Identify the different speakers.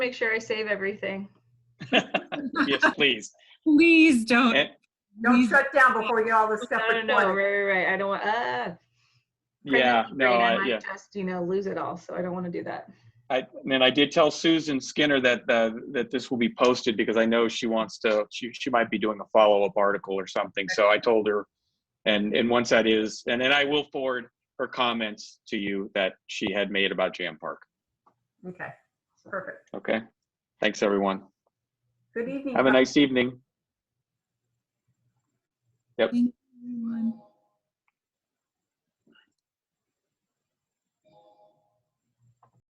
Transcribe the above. Speaker 1: make sure I save everything.
Speaker 2: Yes, please.
Speaker 3: Please don't.
Speaker 2: And-
Speaker 4: Don't
Speaker 3: Please.
Speaker 4: shut down before you get all this
Speaker 1: No,
Speaker 4: stuff
Speaker 1: no, no, right,
Speaker 4: recorded.
Speaker 1: right, right. I don't want, uh.
Speaker 2: Yeah, no,
Speaker 1: I
Speaker 2: I, yeah.
Speaker 1: might just, you know, lose it all, so I don't want to do that.
Speaker 2: I, and I did tell Susan Skinner that, uh, that this will be posted because I know she wants to, she, she might be doing a follow-up article or something. So I told her. And, and once that is, and then I will forward her comments to you that she had made about Jam Park.
Speaker 4: Okay, perfect.
Speaker 2: Okay? Thanks, everyone.
Speaker 4: Good evening.
Speaker 2: Have a
Speaker 4: Tom.
Speaker 2: nice evening.
Speaker 3: Thank you, everyone.